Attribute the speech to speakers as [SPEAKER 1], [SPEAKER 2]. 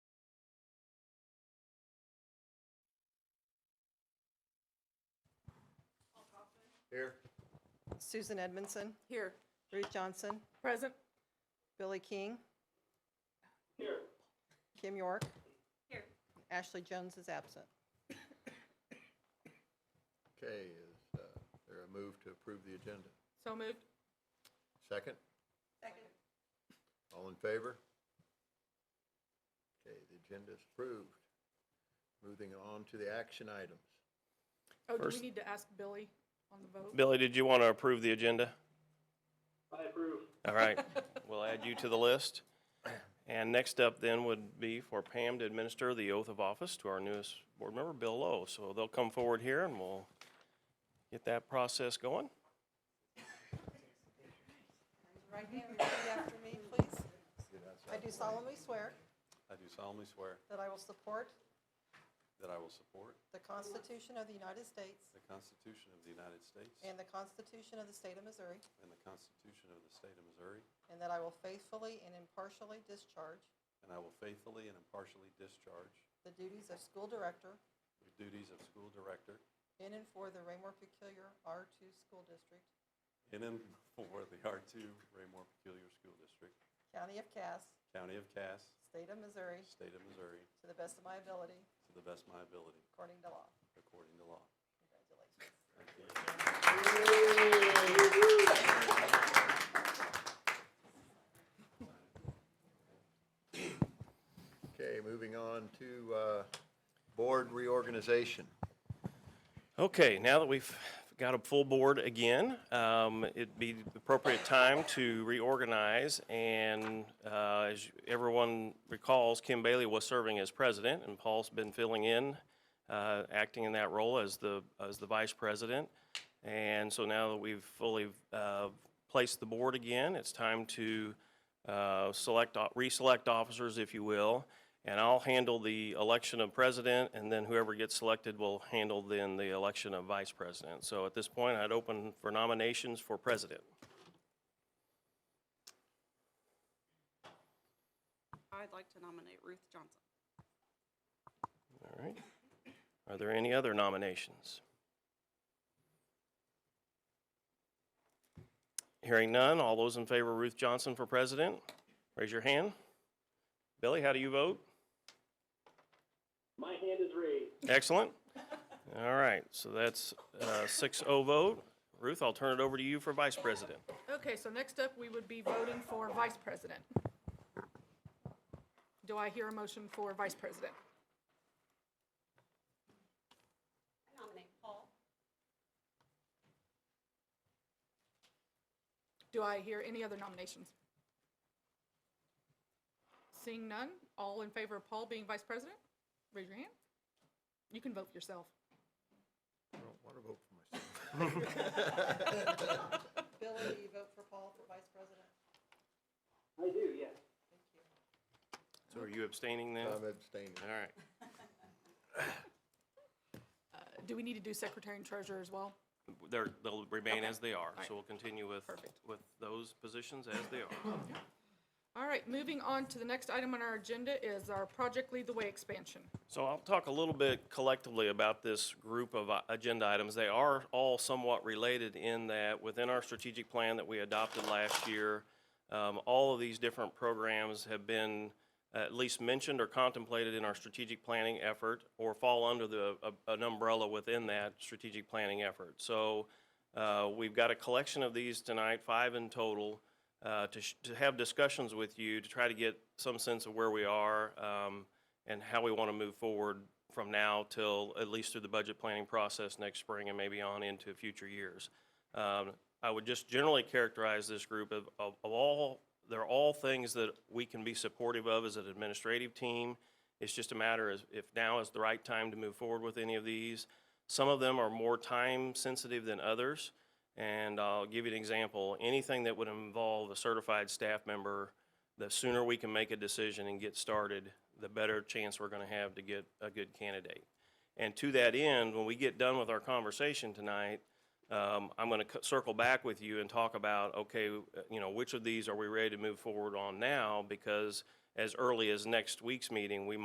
[SPEAKER 1] Here.
[SPEAKER 2] Susan Edmondson,
[SPEAKER 3] Here.
[SPEAKER 2] Ruth Johnson,
[SPEAKER 3] Present.
[SPEAKER 2] Billy King. Here. Kim York.
[SPEAKER 3] Here.
[SPEAKER 2] Ashley Jones is absent.
[SPEAKER 1] Okay, is uh, there a move to approve the agenda?
[SPEAKER 3] So moved.
[SPEAKER 1] Second? Second. All in favor? Okay, the agenda is approved. Moving on to the action items.
[SPEAKER 3] Oh, do we
[SPEAKER 4] First-
[SPEAKER 3] need to ask Billy on the vote?
[SPEAKER 4] Billy, did you want to approve the agenda? I approve. All right, we'll add you to the list. And next up then would be for Pam to administer the oath of office to our newest board member, Bill Lowe. So they'll come forward here and we'll get that process going.
[SPEAKER 2] Right hand, repeat after me, please. I do solemnly swear
[SPEAKER 5] I do solemnly swear
[SPEAKER 2] that I will support
[SPEAKER 5] that I will support
[SPEAKER 2] the Constitution of the United States
[SPEAKER 5] the Constitution of the United States
[SPEAKER 2] and the Constitution of the State of Missouri,
[SPEAKER 5] and the Constitution of the State of Missouri,
[SPEAKER 2] and that I will faithfully and impartially discharge
[SPEAKER 5] and I will faithfully and impartially discharge
[SPEAKER 2] the duties of school director
[SPEAKER 5] the duties of school director
[SPEAKER 2] in and for the Raymore Peculiar R2 School District,
[SPEAKER 5] in and for the R2 Raymore Peculiar School District,
[SPEAKER 2] County of Cass,
[SPEAKER 5] County of Cass,
[SPEAKER 2] State of Missouri,
[SPEAKER 5] State of Missouri,
[SPEAKER 2] to the best of my ability,
[SPEAKER 5] to the best of my ability,
[SPEAKER 2] according to law.
[SPEAKER 5] according to law.
[SPEAKER 2] Congratulations.
[SPEAKER 1] Okay, moving on to uh, board reorganization.
[SPEAKER 4] Okay, now that we've got a full board again, um, it'd be the appropriate time to reorganize. And uh, as everyone recalls, Kim Bailey was serving as president, and Paul's been filling in, uh, acting in that role as the, as the vice president. And so now that we've fully uh, placed the board again, it's time to uh, select, o- reselect officers, if you will, and I'll handle the election of president, and then whoever gets selected will handle then the election of vice president. So at this point, I'd open for nominations for president.
[SPEAKER 6] I'd like to nominate Ruth Johnson.
[SPEAKER 4] All right. Are there any other nominations? Hearing none, all those in favor of Ruth Johnson for president, raise your hand. Billy, how do you vote?
[SPEAKER 7] My hand is raised.
[SPEAKER 4] Excellent. All right, so that's a 6-0 vote. Ruth, I'll turn it over to you for vice president.
[SPEAKER 3] Okay, so next up, we would be voting for vice president. Do I hear a motion for vice president?
[SPEAKER 6] I nominate Paul.
[SPEAKER 3] Do I hear any other nominations? Seeing none, all in favor of Paul being vice president? Raise your hand. You can vote for yourself.
[SPEAKER 1] I don't want to vote for myself.
[SPEAKER 2] Billy, do you vote for Paul for vice president?
[SPEAKER 7] I do, yes.
[SPEAKER 4] So are you abstaining then? All
[SPEAKER 1] I'm abstaining.
[SPEAKER 4] right.
[SPEAKER 3] Uh, Do we need to do secretary and treasurer as well?
[SPEAKER 4] They're, they'll remain as they are, so we'll continue with,
[SPEAKER 3] Perfect.
[SPEAKER 4] with those positions as they are.
[SPEAKER 3] All right, moving on to the next item on our agenda is our Project Lead the Way expansion.
[SPEAKER 4] So I'll talk a little bit collectively about this group of uh, agenda items. They are all somewhat related in that within our strategic plan that we adopted last year, um, all of these different programs have been at least mentioned or contemplated in our strategic planning effort or fall under the, a- an umbrella within that strategic planning effort. So uh, we've got a collection of these tonight, five in total, uh, to sh- to have discussions with you to try to get some sense of where we are. um, and how we want to move forward from now till at least through the budget planning process next spring and maybe on into future years. Um, I would just generally characterize this group of, of of all, they're all things that we can be supportive of as an administrative team. It's just a matter of if now is the right time to move forward with any of these. Some of them are more time-sensitive than others, and I'll give you an example. Anything that would involve a certified staff member, the sooner we can make a decision and get started, the better chance we're going to have to get a good candidate. And to that end, when we get done with our conversation tonight, um, I'm going to circle back with you and talk about, okay, uh, you know, which of these are we ready to move forward on now? Because as early as next week's meeting, we